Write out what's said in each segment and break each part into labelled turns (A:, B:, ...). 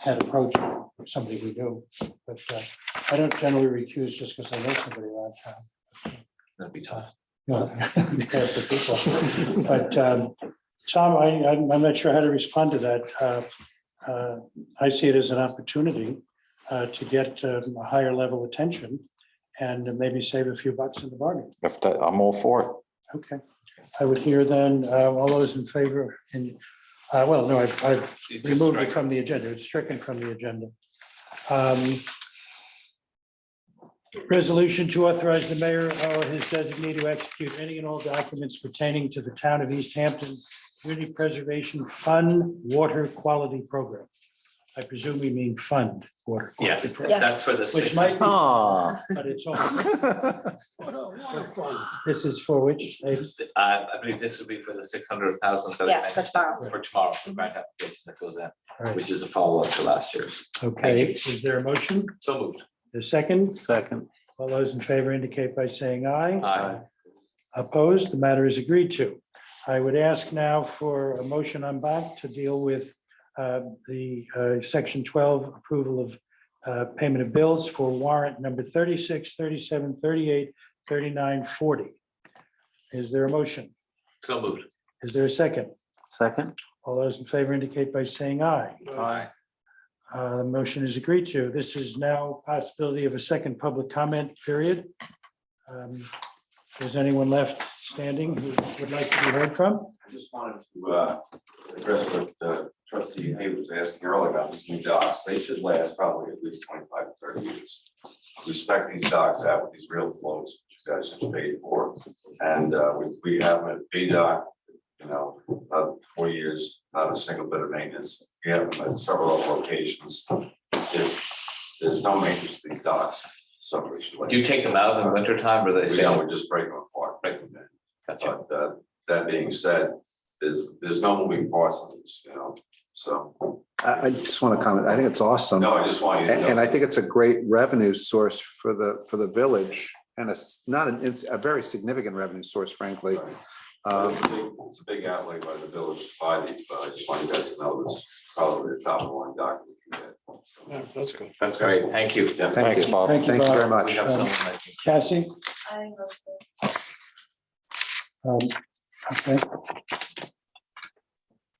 A: had approached somebody we do, but uh, I don't generally recuse just because I know somebody around town.
B: That'd be tough.
A: No, because the people. But um, Tom, I, I'm I'm not sure how to respond to that. Uh, uh, I see it as an opportunity uh, to get um, a higher level attention and maybe save a few bucks in the bargain.
C: If that, I'm all for it.
A: Okay. I would hear then, uh, all those in favor, and, uh, well, no, I've, I've
B: It just
A: removed it
B: strikes-
A: from the agenda, it's stricken from the agenda. Um, Resolution to authorize the mayor or his designee to execute any and all documents pertaining to the town of East Hampton Community Preservation Fund Water Quality Program. I presume we mean fund water. quality
B: Yes,
A: program,
B: that's for the.
A: Which
B: six-
A: might be,
C: Ah.
A: but it's all,
C: Well,
A: this is for which, eh,
B: Uh, I believe this would be for the six hundred thousand. that I
D: Yes, for
B: mentioned.
D: tomorrow. Mm-hmm.
B: For tomorrow, for grant application that goes in,
A: Right.
B: which is a follow-up to last year's.
A: okay, is there a motion,
B: So moved.
A: a second?
C: Second.
A: All those in favor indicate by saying aye.
B: Aye.
A: Opposed, the matter is agreed to. I would ask now for a motion on back to deal with uh, the uh, section twelve approval of uh, payment of bills for warrant number 36, 37, 38, 39, 40. Is there a motion?
B: So moved.
A: Is there a second?
C: Second.
A: All those in favor indicate by saying aye.
B: Aye.
A: Uh, The motion is agreed to. This is now possibility of a second public comment period. Um, Is anyone left standing who would like to be heard from?
E: I just wanted to uh, address what uh, trustee Hay was asking earlier about these new docks. They should last probably at least twenty-five to thirty years. We spec these docks out with these real floats, which you guys just paid for. And uh, we, we have a B dock, you know, about four years, not a single bit of maintenance. We have them at several other locations. If There's no maintenance to these docks, so we should. last.
B: Do you take them out in the winter time or they
E: We
B: stay on?
E: don't, we just break them apart, break them down.
B: Gotcha.
E: But uh, that being said, there's, there's no moving parts on this, you know, so,
F: I, I just want to comment. I think it's awesome.
E: no, I just want you
F: And,
E: to know.
F: and I think it's a great revenue source for the, for the village and it's not an, it's a very significant revenue source, frankly.
E: Sorry.
F: Um,
E: It's a big- it's a big outlay by the village to buy these, but I just want you guys to know this, probably the top one document you get. So,
A: That's good.
B: That's great. Thank you.
E: yeah.
C: Thanks, Bob.
A: Thank you,
F: Thank you very
A: Bob.
B: We
F: much.
B: have
A: Um,
B: someone that can-
A: Cassie?
D: I will.
A: Um, okay.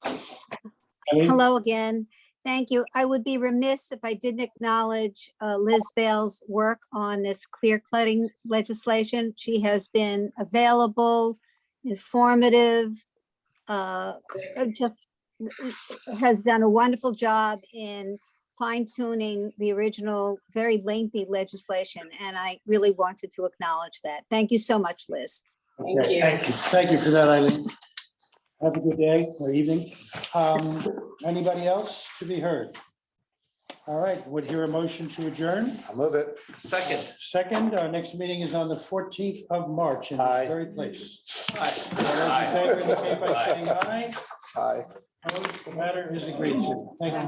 A: Ellie?
G: Hello again. Thank you. I would be remiss if I didn't acknowledge uh, Liz Vale's work on this clear cutting legislation. She has been available, informative, uh, uh, just has done a wonderful job in fine tuning the original very lengthy legislation, and I really wanted to acknowledge that. Thank you so much, Liz.
D: Thank you.
A: Thank you. Thank you for that, Eileen. Have a good day or evening. Um, Anybody else to be heard? All right, would hear a motion to adjourn.
F: I'll move it.
B: Second.
A: Second, our next meeting is on the fourteenth of March in this
F: Aye.
A: very place. All those in
B: Aye.
A: favor indicate by saying aye.
F: Aye.
A: Opposed? The matter is agreed to. Thank you.